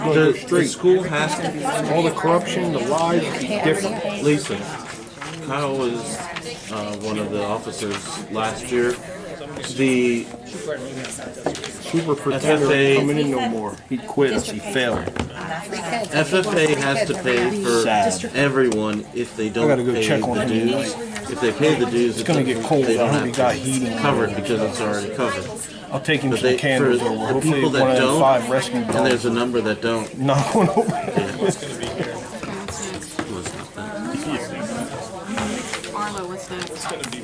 The, the school has to, All the corruption, the lies, it's different. Lisa, Kyle was uh, one of the officers last year. The Super pretender FFA ain't coming in no more. He quit. He failed. FFA has to pay for Sad. everyone if they don't I gotta go pay check the on him. dues. If they pay the dues, It's gonna get cold. They I don't hope he have got to- heating. covered because it's already covered. I'll take him But some they, for candles over. the Hopefully people one that of them don't, five rescue and there's dogs a number that don't, knock one over.